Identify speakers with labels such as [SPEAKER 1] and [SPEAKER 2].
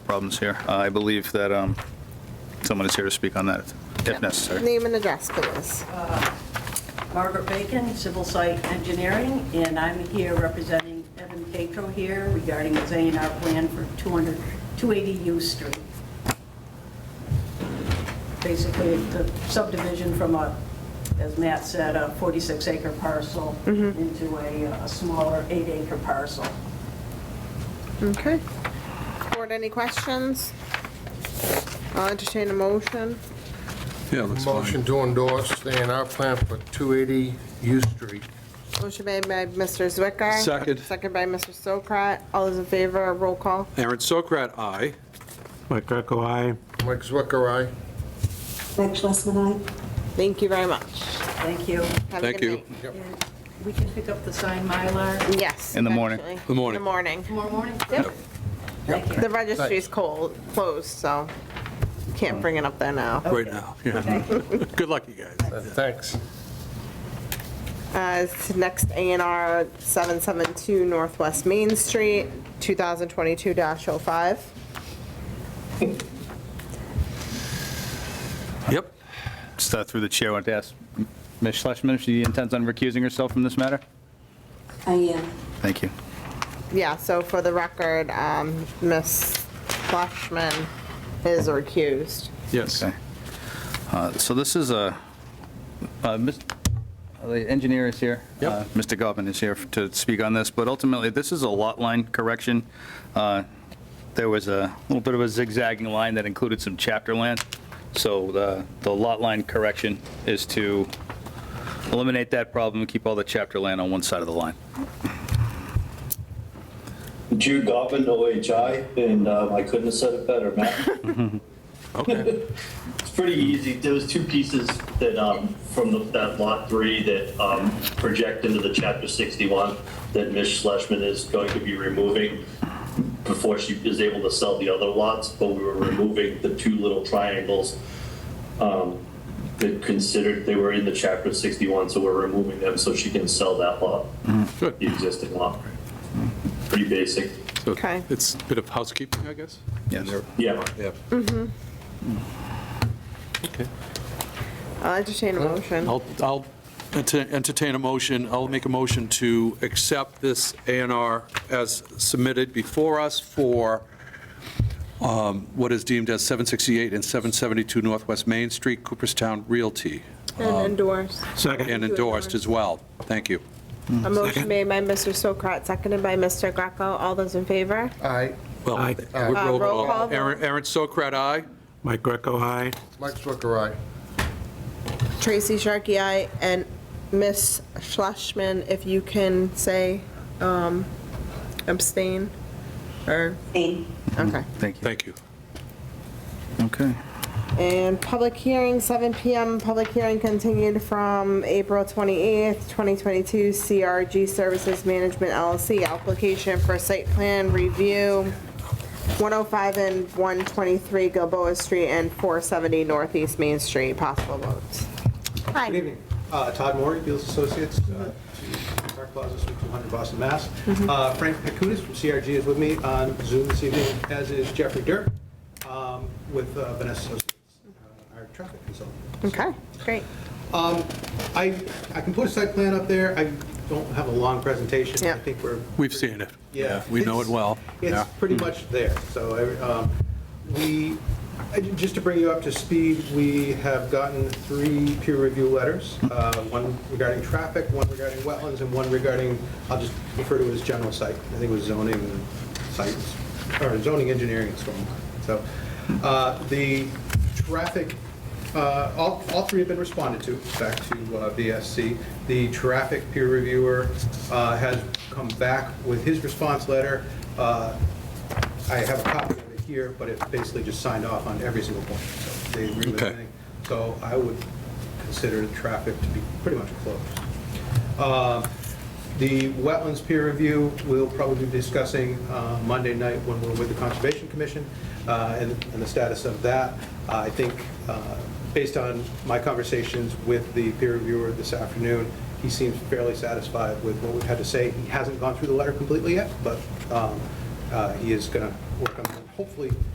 [SPEAKER 1] problems here. Uh, I believe that um, someone is here to speak on that, if necessary.
[SPEAKER 2] Name and address, please.
[SPEAKER 3] Margaret Bacon, Civil Site Engineering, and I'm here representing Evan Catro here regarding his A and R plan for 200 280 U Street. Basically, the subdivision from a, as Matt said, a 46-acre parcel into a uh, smaller eight-acre parcel.
[SPEAKER 2] Okay. Board, any questions? I'll entertain a motion.
[SPEAKER 4] Yeah, looks
[SPEAKER 5] Motion
[SPEAKER 4] fine.
[SPEAKER 5] to endorse the A and R plan for 280 U Street.
[SPEAKER 2] Motion made by Mr. Zwicker.
[SPEAKER 4] Second.
[SPEAKER 2] Second by Mr. Sokrat. All those in favor, roll call.
[SPEAKER 4] Aaron Sokrat, aye.
[SPEAKER 6] Mike Greco, aye.
[SPEAKER 5] Mike Zwicker, aye.
[SPEAKER 7] Meg Schlesman, aye.
[SPEAKER 2] Thank you very much.
[SPEAKER 3] Thank you.
[SPEAKER 2] Have a
[SPEAKER 4] Thank
[SPEAKER 2] good
[SPEAKER 4] you.
[SPEAKER 2] night.
[SPEAKER 3] And We can pick up the signed Mylar
[SPEAKER 2] Yes.
[SPEAKER 1] In the morning.
[SPEAKER 2] actually. In
[SPEAKER 4] The morning.
[SPEAKER 2] The morning.
[SPEAKER 3] tomorrow morning? Yep. Thank you.
[SPEAKER 2] The registry's cold, closed, so can't bring it up there now.
[SPEAKER 4] Right now, yeah. Good luck, you guys.
[SPEAKER 5] Uh, Thanks.
[SPEAKER 2] Uh, it's Next A and R 772 Northwest Main Street, 2022-05.
[SPEAKER 4] Yep.
[SPEAKER 1] Just uh, through the chair, I want to ask Ms. Schlesman if she intends on recusing herself from this matter?
[SPEAKER 7] I am.
[SPEAKER 1] Thank you.
[SPEAKER 2] Yeah, so for the record, um, Ms. Flashman is recused.
[SPEAKER 4] Yes.
[SPEAKER 1] Okay. Uh, So this is a, uh, Mis- uh, the engineer is here.
[SPEAKER 4] Yep.
[SPEAKER 1] Uh, Mr. Goffin is here to speak on this, but ultimately, this is a lot line correction. Uh, There was a little bit of a zigzagging line that included some chapter land, so the the lot line correction is to eliminate that problem and keep all the chapter land on one side of the line.
[SPEAKER 8] Jude Goffin, OHI, and um, I couldn't have said it better, Matt.
[SPEAKER 4] Okay.
[SPEAKER 8] It's pretty easy. There was two pieces that um, from the, that lot three that um, project into the chapter 61 that Ms. Schlesman is going to be removing before she is able to sell the other lots. But we were removing the two little triangles um, that considered they were in the chapter 61, so we're removing them so she can sell that lot,
[SPEAKER 4] Good.
[SPEAKER 8] the existing lot. Pretty basic.
[SPEAKER 4] So
[SPEAKER 2] Okay.
[SPEAKER 4] It's a bit of housekeeping, I guess?
[SPEAKER 1] Yes.
[SPEAKER 8] Yeah.
[SPEAKER 4] Yep. Okay.
[SPEAKER 2] I'll entertain a motion.
[SPEAKER 4] I'll, I'll enter- entertain a motion, I'll make a motion to accept this A and R as submitted before us for um, what is deemed as 768 and 772 Northwest Main Street, Cooperstown Realty,
[SPEAKER 2] And endorse.
[SPEAKER 4] and
[SPEAKER 6] Second.
[SPEAKER 4] endorsed as well. Thank you.
[SPEAKER 2] A motion made by Mr. Sokrat, seconded by Mr. Greco. All those in favor?
[SPEAKER 5] Aye.
[SPEAKER 4] Well,
[SPEAKER 6] Aye.
[SPEAKER 4] we're
[SPEAKER 2] Uh, roll call vote.
[SPEAKER 4] Aaron Aaron Sokrat, aye?
[SPEAKER 6] Mike Greco, aye.
[SPEAKER 5] Mike Zwicker, aye.
[SPEAKER 2] Tracy Sharkey, aye. And Ms. Schlesman, if you can say um, abstain, or,
[SPEAKER 7] Aye.
[SPEAKER 2] okay.
[SPEAKER 1] Thank you.
[SPEAKER 4] Thank you.
[SPEAKER 1] Okay.
[SPEAKER 2] And public hearing, 7 PM, public hearing continued from April 28th, 2022, CRG Services Management LLC, application for site plan review, 105 and 123 Gilboa Street and 470 Northeast Main Street, possible votes.
[SPEAKER 9] Good evening. Uh, Todd Moore, Beals Associates, uh, to Park Plaza, Suite 200, Boston, Mass. Uh, Frank Pacutis from CRG is with me on Zoom this evening, as is Jeffrey Dirk um, with uh, Vanessa Associates, uh, our traffic consultant.
[SPEAKER 2] Okay, great.
[SPEAKER 9] I I can put a site plan up there. I don't have a long presentation.
[SPEAKER 2] Yeah.
[SPEAKER 9] I think we're
[SPEAKER 4] We've seen it.
[SPEAKER 9] yeah.
[SPEAKER 4] We know it well. Yeah.
[SPEAKER 9] It's pretty much there. So um, we, I- just to bring you up to speed, we have gotten three peer review letters, uh, one regarding traffic, one regarding wetlands, and one regarding, I'll just refer to it as general site. I think it was zoning and sites, or zoning engineering and stormwater. So uh, the traffic uh, All, all three have been responded to, back to uh, VSC. The traffic peer reviewer uh, has come back with his response letter. Uh, I have a copy of it here, but it's basically just signed off on every single point. So They agree with
[SPEAKER 4] Okay.
[SPEAKER 9] everything. So I would consider the traffic to be pretty much closed. Uh, The wetlands peer review, we'll probably be discussing uh, Monday night when we're with the Conservation Commission uh, and and the status of that. I think, uh, based on my conversations with the peer reviewer this afternoon, he seems fairly satisfied with what we've had to say. He hasn't gone through the letter completely yet, but um, uh, he is going to work on, hopefully,